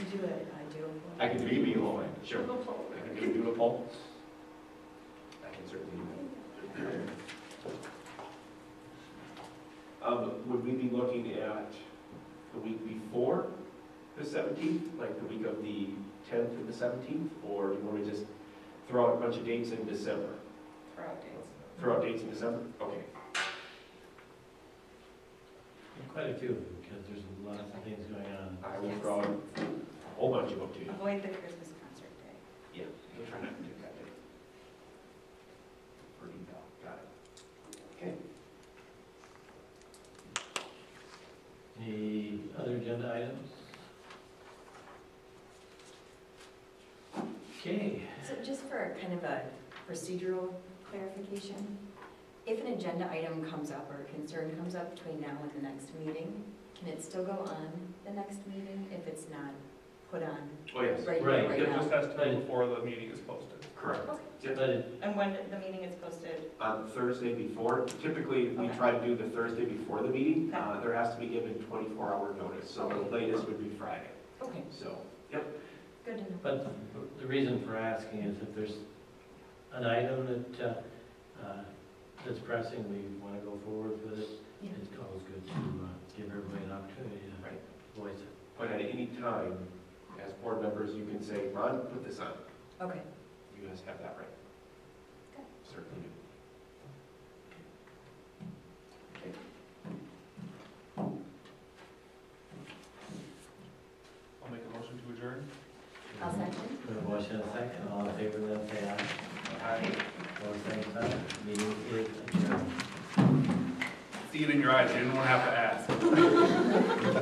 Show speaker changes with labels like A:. A: do an ideal
B: I
A: plan.
B: can be beholden, sure.
C: Google poll.
B: I can do doodle poll. I can certainly. do that. Um, would we be looking at the week before the seventeenth, like the week of the tenth and the seventeenth? Or do you want to just throw out a bunch of dates in December?
C: for updates.
B: Throw out dates in December? Okay.
D: Quite a few, because there's a lot of things going on.
B: I will throw out a whole bunch of them to you.
C: Avoid the Christmas concert day.
B: Yeah, we'll try not to do that day. Or email, got it. Okay.
D: Any other agenda items? Okay,
A: So just for kind of a procedural clarification, if an agenda item comes up or a concern comes up between now and the next meeting, can it still go on the next meeting if it's not put on
B: Oh, yes.
A: right
D: Right,
A: here, right
E: It
A: now?
E: just has to be
D: Right.
E: before the meeting is posted.
B: Correct.
D: but it-
C: And when the meeting is posted,
B: On uh, Thursday before, typically, we
C: Okay.
B: try to do the Thursday before the meeting.
C: Okay.
B: Uh, There has to be given 24-hour notice, so the latest would be Friday.
A: Okay,
B: So,
A: good to know.
D: but the reason for asking is if there's an item that, uh, uh, that's pressing, we want to go forward with it.
A: Yeah.
D: It's always good to uh, give everybody an opportunity
B: Right.
D: to voice it.
B: but at any time, as board members, you can say, Ron, put this on.
A: Okay,
B: You guys have that right.
A: Okay.
B: Certainly.
E: I'll make a motion to adjourn.
A: I'll second.
D: Put a motion in a second, all in favor, then say aye.
B: Aye.
D: All same sign, meeting is adjourned.
E: See it in your eyes, you didn't want to have to ask.